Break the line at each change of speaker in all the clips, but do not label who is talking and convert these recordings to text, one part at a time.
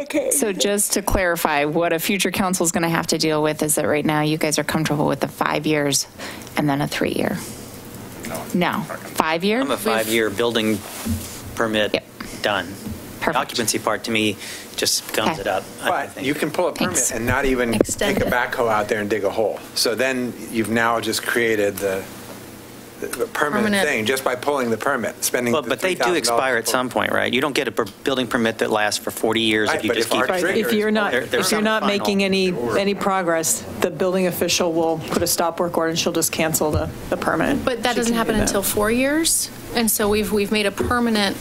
Okay.
So just to clarify, what a future council is going to have to deal with is that right now you guys are comfortable with the five years and then a three-year. No, five year?
I'm a five-year building permit
Yep.
done. The
Perfect.
Occupancy part, to me, just gums
Okay.
it up. I
But
think.
you can pull a
Thanks.
permit and not even take
Extend
a
it.
backhoe out there and dig a hole. So then you've now just created the, the- the permanent
Permanent.
thing just by pulling the permit, spending
Well,
the
but they do
$3,000
expire at
to pull-
some point, right? You don't get a per- building permit that lasts for 40 years
Right,
if you
but
just
if
keep.
our
Right,
trigger
if you're
is-
not,
There-
if
there's
you're not
some final-
making any, any progress, the building official will put a stop work order and she'll just cancel the, the permit.
But that
She can
doesn't
do
happen
that.
until four years, and so we've, we've made a permanent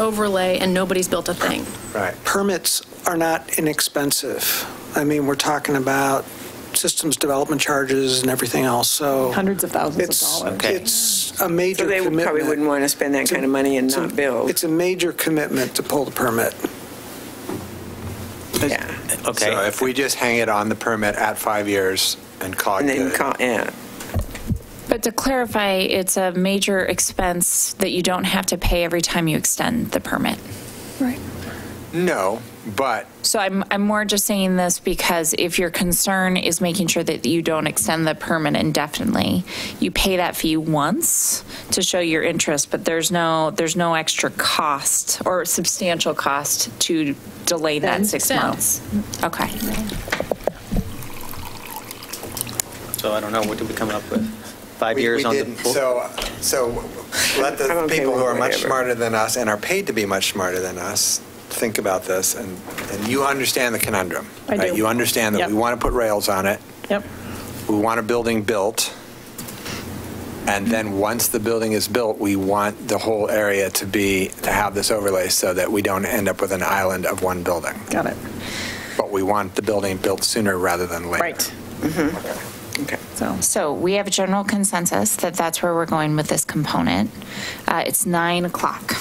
overlay, and nobody's built a thing.
Right.
permits are not inexpensive. I mean, we're talking about systems development charges and everything else, so.
Hundreds of thousands of
It's-
dollars.
Okay.
It's a major
So they
commitment.
probably wouldn't want to spend that kind of money and
It's a-
not build.
It's a major commitment to pull the permit.
Yeah.
So
Okay,
if we just hang it on the permit at five years and call it
And then
good,
call, yeah.
But to clarify, it's a major expense that you don't have to pay every time you extend the permit.
Right.
No, but
So I'm, I'm more just saying this because if your concern is making sure that you don't extend the permit indefinitely, you pay that fee once to show your interest, but there's no, there's no extra cost or substantial cost to delay that
Then
six
extend.
months. Okay.
so I don't know, what did we come up with? Five
we we
years on the.
didn't. So, so let
I'm
the
okay
people
with
who are much
whatever.
smarter than us and are paid to be much smarter than us think about this, and, and you understand the conundrum.
I
right?
do.
You understand that
Yep.
we want to put rails on it.
Yep.
we want a building built, and then once the building is built, we want the whole area to be, to have this overlay so that we don't end up with an island of one building.
Got it.
But we want the building built sooner rather than later.
Right.
Okay.
So,
So we have a general consensus that that's where we're going with this component. Uh, It's nine o'clock.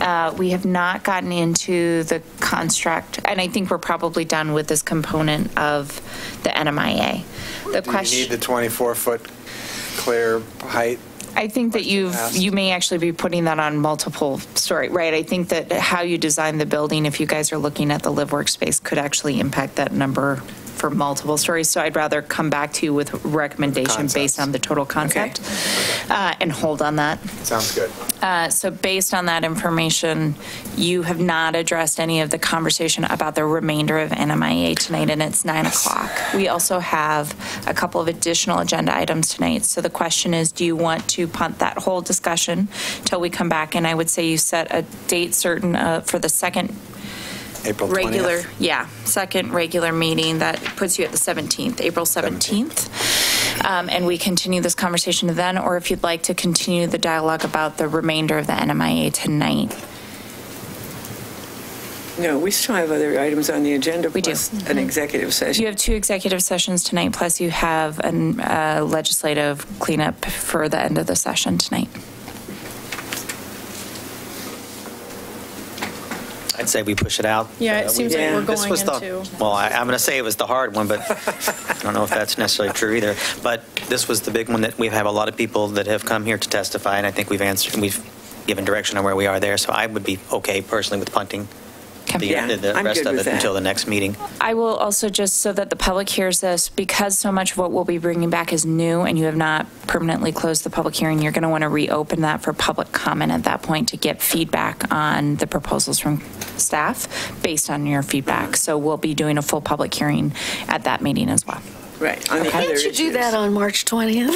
Uh, We have not gotten into the construct, and I think we're probably done with this component of the NMIA. The
Do you need the
question,
24-foot clear height?
I think that you've,
asked?
you may actually be putting that on multiple story, right? I think that how you design the building, if you guys are looking at the live workspace, could actually impact that number for multiple stories. So I'd rather come back to you with recommendation
Concepts.
based on the total concept uh, and hold on that.
Sounds good.
Uh, So based on that information, you have not addressed any of the conversation about the remainder of NMIA tonight, and it's 9 o'clock. We also have a couple of additional agenda items tonight. So the question is, do you want to punt that whole discussion till we come back? And I would say you set a date certain uh, for the second
April 20th.
regular, yeah, second regular meeting, that puts you at the 17th, April 17th. Um, And we continue this conversation then, or if you'd like to continue the dialogue about the remainder of the NMIA tonight.
No, we still have other items on the agenda.
We do.
plus An executive
You
session.
have two executive sessions tonight, plus you have a legislative cleanup for the end of the session tonight.
I'd say we push it out.
Yeah, it
Uh, we-
seems like
Yeah.
we're
This
going
was
into.
the, well, I- I'm going to say it was the hard one, but I don't know if that's necessarily true either. But this was the big one that we have a lot of people that have come here to testify, and I think we've answered, we've given direction on where we are there. So I would be okay personally with punting the
Okay.
Yeah,
the- the
I'm
rest
good
of
with
it
that.
until the next meeting.
I will also, just so that the public hears this, because so much of what we'll be bringing back is new and you have not permanently closed the public hearing, you're going to want to reopen that for public comment at that point to get feedback on the proposals from staff based on your feedback. So we'll be doing a full public hearing at that meeting as well.
Right. on the other
Can't you do
issues.
that on March 20th?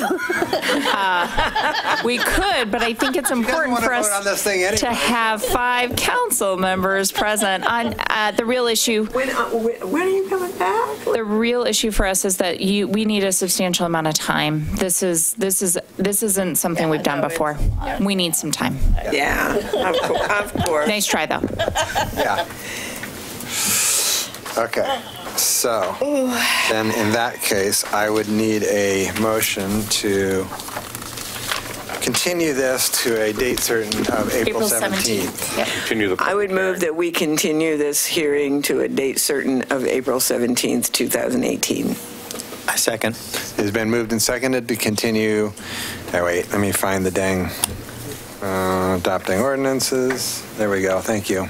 We could, but I think it's important
wanna
for us
vote on this thing anyway.
to have five council members present on uh, the real issue.
When, uh, when when are you coming back?
The real issue for us is that you, we need a substantial amount of time. This is, this is, this isn't something we've done before. We need some time.
Yeah, of cour- of course.
Nice try, though.
Yeah. Okay, so then in that case, I would need a motion to continue this to a date certain of April 17th.
Continue the.
I would move that we continue this hearing to a date certain of April 17th, 2018.
I second.
It's been moved and seconded to continue, oh wait, let me find the dang, uh, adopting ordinances. There we go, thank you.